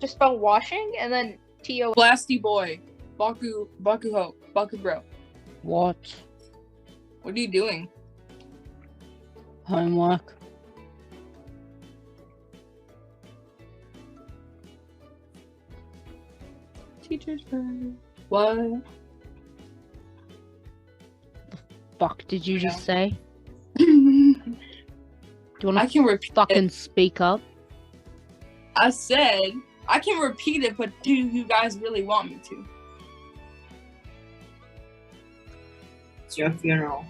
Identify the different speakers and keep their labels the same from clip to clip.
Speaker 1: to spell washing and then T O.
Speaker 2: Blasty boy, Baku, Bakuho, Bakubro.
Speaker 3: What?
Speaker 2: What are you doing?
Speaker 3: Homework.
Speaker 2: Teacher's pet. What?
Speaker 3: Fuck did you just say? Do you
Speaker 2: I
Speaker 3: wanna
Speaker 2: can repeat.
Speaker 3: fucking speak up?
Speaker 2: I said I can repeat it, but do you guys really want me to?
Speaker 4: It's your funeral.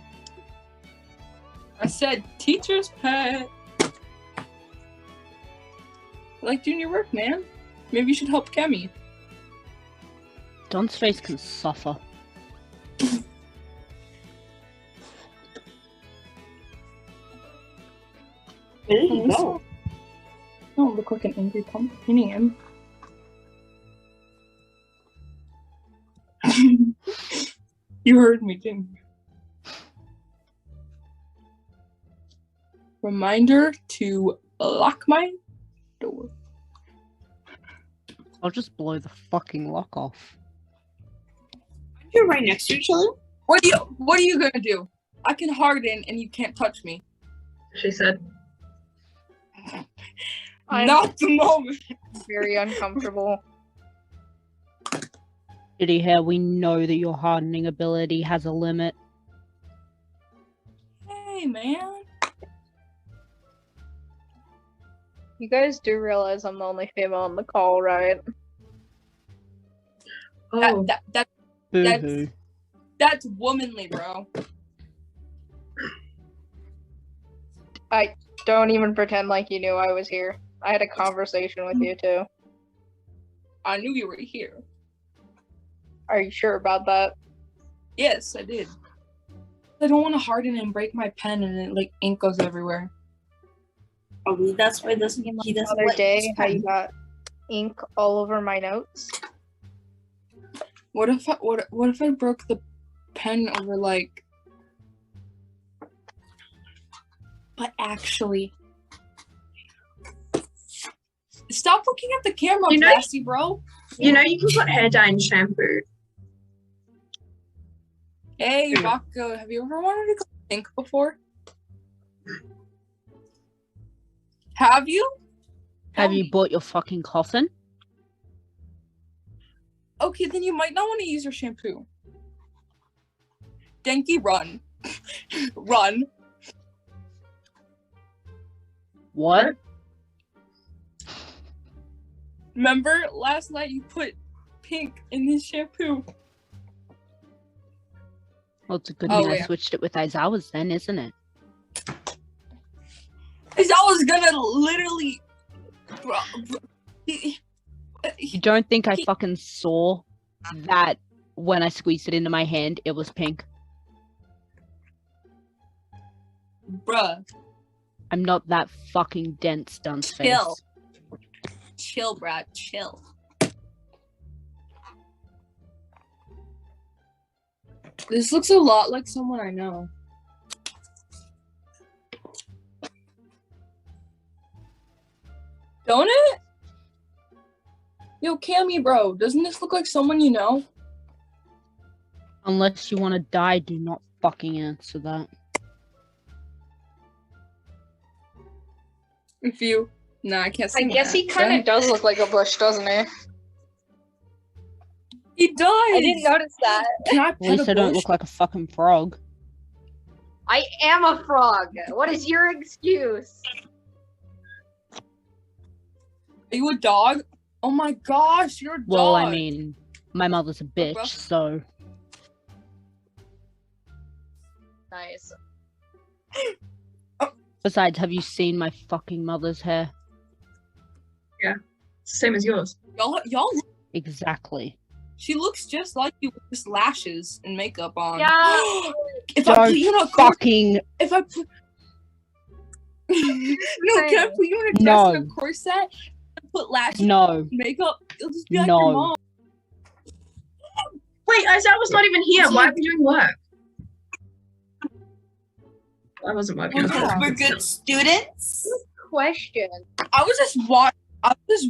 Speaker 2: I said teacher's pet. I like doing your work, man. Maybe you should help Kemi.
Speaker 3: Don's face can suffer.
Speaker 4: Where did
Speaker 3: Hmm.
Speaker 2: Oh,
Speaker 4: he
Speaker 2: this-
Speaker 4: go?
Speaker 2: Don't look like an angry pumpkin. I am. you heard me, didn't you? Reminder to lock my door.
Speaker 3: I'll just blow the fucking lock off.
Speaker 4: You're right next to each other.
Speaker 2: What do you What are you gonna do? I can harden, and you can't touch me.
Speaker 5: She said,
Speaker 1: I'm
Speaker 2: Not the moment.
Speaker 1: very uncomfortable.
Speaker 3: Shitty hair, we know that your hardening ability has a limit.
Speaker 2: Hey, man.
Speaker 1: You guys do realize I'm the only female on the call, right?
Speaker 5: "Oh,
Speaker 2: That, that, that
Speaker 3: Boo
Speaker 2: That's-
Speaker 3: hoo.
Speaker 2: that's womanly, bro.
Speaker 1: Don't even pretend like you knew I was here. I had a conversation with you too.
Speaker 2: I knew you were here.
Speaker 1: Are you sure about that?
Speaker 2: Yes, I did. I don't want to harden and break my pen, and it like ink goes everywhere.
Speaker 4: Probably that's why doesn't he doesn't
Speaker 1: Other
Speaker 4: like
Speaker 1: day,
Speaker 4: his
Speaker 1: how you
Speaker 4: friend.
Speaker 1: got ink all over my notes.
Speaker 2: What if I what what if I broke the pen over like But actually Stop looking at the camera,
Speaker 5: You know-
Speaker 2: Blasty bro.
Speaker 5: you know, you can put hair dye in shampoo.
Speaker 2: Hey Rocco, have you ever wanted to go think before? Have you?
Speaker 3: Have
Speaker 2: Tell
Speaker 3: you
Speaker 2: me.
Speaker 3: bought your fucking coffin?
Speaker 2: Okay, then you might not want to use your shampoo. Denki, run. run.
Speaker 3: What?
Speaker 2: Remember last night you put pink in his shampoo.
Speaker 3: Well, it's a good
Speaker 2: Oh,
Speaker 3: thing I
Speaker 2: yeah.
Speaker 3: switched it with Aizawa's then, isn't it?
Speaker 2: Cause I was gonna literally. Bro, bro- he-
Speaker 3: You
Speaker 2: he-
Speaker 3: don't think I
Speaker 2: He-
Speaker 3: fucking saw that when I squeezed it into my hand, it was pink?
Speaker 2: Bruh,
Speaker 3: I'm not that fucking dense, dunce face.
Speaker 2: Chill. chill, Brad, chill. This looks a lot like someone I know. Don't it? Yo, Cammy, bro, doesn't this look like someone you know?
Speaker 3: Unless you want to die, do not fucking answer that.
Speaker 2: If you, no, I can't.
Speaker 1: I
Speaker 2: sing
Speaker 1: guess
Speaker 2: that.
Speaker 1: he kind of does look like a bush, doesn't he?
Speaker 2: He does.
Speaker 1: I didn't notice that.
Speaker 2: Can I
Speaker 3: At
Speaker 2: pet
Speaker 3: least I
Speaker 2: a
Speaker 3: don't
Speaker 2: bush?
Speaker 3: look like a fucking frog.
Speaker 1: I am a frog. What is your excuse?
Speaker 2: Are you a dog? Oh my gosh, you're a dog.
Speaker 3: Well, I mean, my mother's a
Speaker 2: bro.
Speaker 3: bitch, so
Speaker 1: Nice.
Speaker 3: besides, have you seen my fucking mother's hair?
Speaker 5: Same as yours.
Speaker 2: y'all, y'all. look-
Speaker 3: Exactly.
Speaker 2: She looks just like you with just lashes and makeup on.
Speaker 1: Yeah.
Speaker 2: if I
Speaker 3: Don't
Speaker 2: put you in a cor-
Speaker 3: Fucking
Speaker 2: if I put. no, can I put you in a dress and a
Speaker 3: No.
Speaker 2: corset? And put lashes,
Speaker 3: no.
Speaker 2: and makeup. You'll just be like
Speaker 3: No.
Speaker 2: your mom.
Speaker 5: Wait, Isaiah was not even here. Why are we doing work? I wasn't working.
Speaker 2: Yeah.
Speaker 4: Because we're good students.
Speaker 1: Question.
Speaker 2: I was just watching. I was just